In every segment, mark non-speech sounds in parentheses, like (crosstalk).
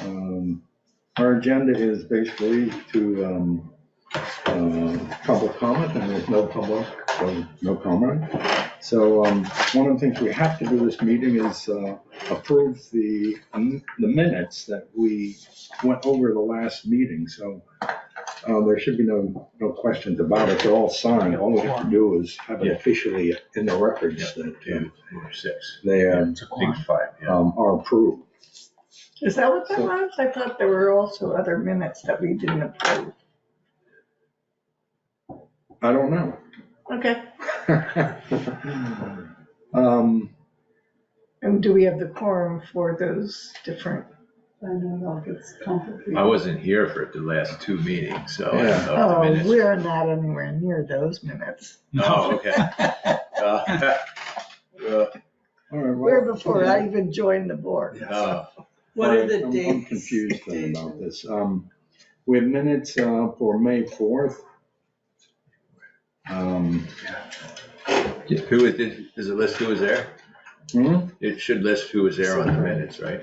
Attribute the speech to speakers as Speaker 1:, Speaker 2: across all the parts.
Speaker 1: Um, Our agenda is basically to um, uh, public comment, and there's no public, so no comment. So um, one of the things we have to do this meeting is uh, approve the, um, the minutes that we went over the last meeting, so uh, there should be no, no questions about it, they're all signed, all we have to do is have it officially in the records that uh,
Speaker 2: or six.
Speaker 1: they
Speaker 2: Yeah,
Speaker 1: um,
Speaker 2: it's a big five, yeah.
Speaker 1: um, are approved.
Speaker 3: Is that what that
Speaker 1: So-
Speaker 3: was? I thought there were also other minutes that we didn't approve.
Speaker 1: I don't know.
Speaker 3: Okay.
Speaker 1: (laughs) Um,
Speaker 3: And do we have the quorum for those different?
Speaker 4: I don't know if it's complicated.
Speaker 2: I wasn't here for the last two meetings, so. I don't
Speaker 1: Yeah.
Speaker 2: know if the
Speaker 3: Oh,
Speaker 2: minutes-
Speaker 3: we're not anywhere near those minutes.
Speaker 2: Oh, okay. Uh, (laughs) uh,
Speaker 1: all right, well-
Speaker 3: Where before I even joined the board.
Speaker 2: uh,
Speaker 4: What are
Speaker 1: I'm-
Speaker 4: the dates?
Speaker 1: I'm confused then about this. Um, we have minutes, uh, for May fourth. Um,
Speaker 2: Who was, did- does it list who was there?
Speaker 1: hmm,
Speaker 2: It should list who was there on the minutes, right?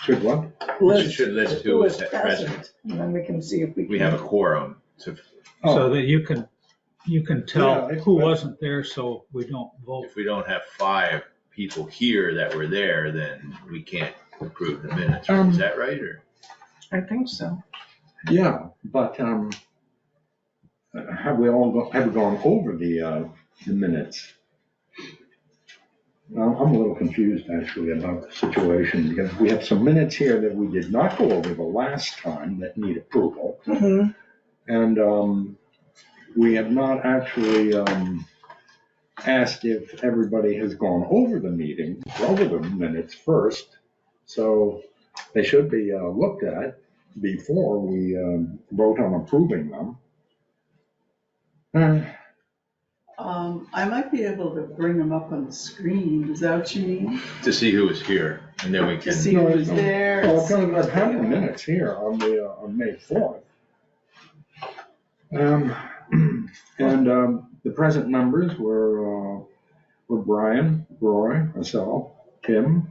Speaker 1: should what?
Speaker 2: It should list who was at present.
Speaker 3: present. And then we can see if we.
Speaker 2: We
Speaker 3: can-
Speaker 2: have a quorum to,
Speaker 1: Oh,
Speaker 5: So that you can, you can
Speaker 1: Yeah,
Speaker 5: tell
Speaker 1: it's
Speaker 5: who
Speaker 1: better.
Speaker 5: wasn't there, so we don't vote.
Speaker 2: if we don't have five people here that were there, then we can't approve the minutes. right?
Speaker 1: Um,
Speaker 2: Is that right, or?
Speaker 3: I think so.
Speaker 1: yeah, but, um, have we all, go- have we gone over the, uh, the minutes? Well, I'm a little confused actually about the situation because we have some minutes here that we did not go over the last time that need approval.
Speaker 4: Mm-hmm.
Speaker 3: Mhm.
Speaker 1: And um, we have not actually um, asked if everybody has gone over the meeting, over the minutes first. So they should be uh, looked at before we um, vote on approving them. Uh,
Speaker 4: Um, I might be able to bring them up on the screen, is that what you mean?
Speaker 2: To see who was here, and then we
Speaker 4: To
Speaker 2: can.
Speaker 4: see who was there?
Speaker 1: Well, I've got- I've had the minutes here on the, uh, on May 4th. Um, (clears throat) And um, the present members were, uh, were Brian, Roy, myself, Tim,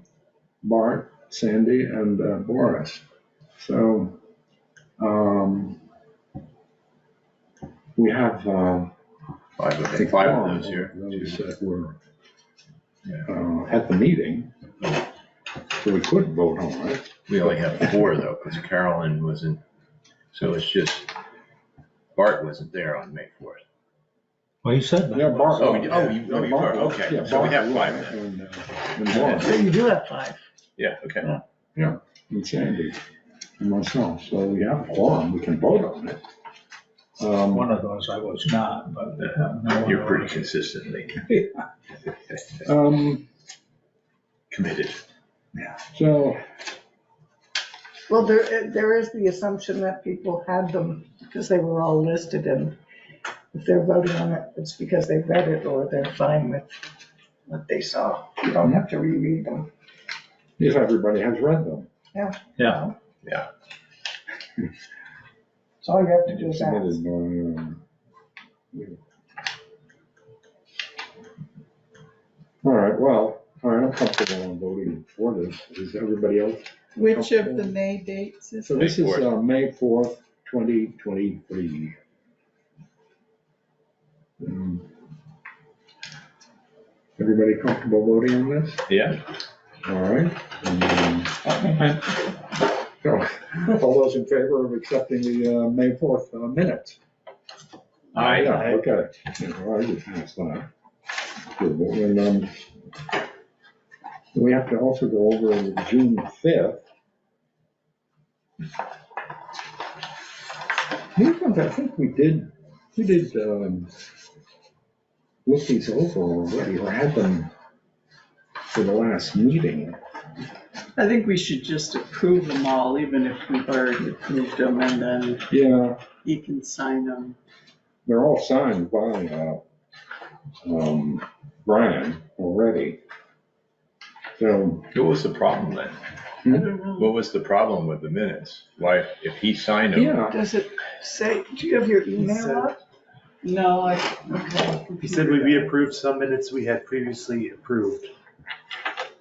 Speaker 1: Bart, Sandy, and uh, Boris. So um, we have. uh,
Speaker 2: Five of
Speaker 1: the
Speaker 2: them, five of
Speaker 1: quorum
Speaker 2: those here.
Speaker 1: Those that were
Speaker 2: Yeah.
Speaker 1: uh, at the meeting, so we could vote on it.
Speaker 2: We only have four though, because Carolyn wasn't, so it's just, Bart wasn't there on May fourth.
Speaker 5: Well, you said that.
Speaker 1: Yeah, Bart.
Speaker 2: Oh, you- oh, you- oh, you are, okay.
Speaker 1: Yeah,
Speaker 2: So we
Speaker 1: Bart
Speaker 2: have five
Speaker 1: Lewis
Speaker 2: then.
Speaker 1: and, uh, And
Speaker 2: (laughs)
Speaker 1: Lawrence
Speaker 3: So you do have five.
Speaker 2: Yeah, okay.
Speaker 1: and Sandy and myself, so we have quorum, we can vote on it. Um,
Speaker 5: One of those I was not, but. uh, no one
Speaker 2: You're pretty
Speaker 5: else.
Speaker 2: (laughs) consistently
Speaker 1: um,
Speaker 2: committed.
Speaker 1: so,
Speaker 3: Well, there, there is the assumption that people had them because they were all listed and if they're voting on it, it's because they read it or they're fine with what they saw. You don't have to reread them.
Speaker 1: if everybody has read them.
Speaker 5: Yeah.
Speaker 3: So all you have to do is ask.
Speaker 1: Submitted by, um, yeah. All right, well, all right, I'm comfortable on voting for this, is everybody else?
Speaker 4: Which of the May dates is
Speaker 1: So
Speaker 4: it?
Speaker 1: this is,
Speaker 2: May 4th.
Speaker 1: uh, May fourth, twenty twenty-three. Um, Everybody comfortable voting on this?
Speaker 2: Yeah.
Speaker 1: All right. um, so, (laughs) All those in favor of accepting the, uh, May fourth minutes?
Speaker 5: Aye.
Speaker 1: Yeah, Okay. Yeah, all right, I just missed that. Good, but when, um, We have to also go over the June fifth. These ones, I think we did, we did, um, look these over already, or had them for the last meeting.
Speaker 4: I think we should just approve them all, even if we've already approved them, and then
Speaker 1: Yeah,
Speaker 4: you can sign them.
Speaker 1: they're all signed by, uh, um, Brian already. So,
Speaker 2: What was the problem then?
Speaker 4: I don't know.
Speaker 2: What was the problem with the minutes? Why, if he signed them?
Speaker 1: yeah,
Speaker 3: Does it say, do you have your email
Speaker 6: said-
Speaker 3: up?
Speaker 4: No, I, okay.
Speaker 6: He said we reapproved some minutes we had previously approved.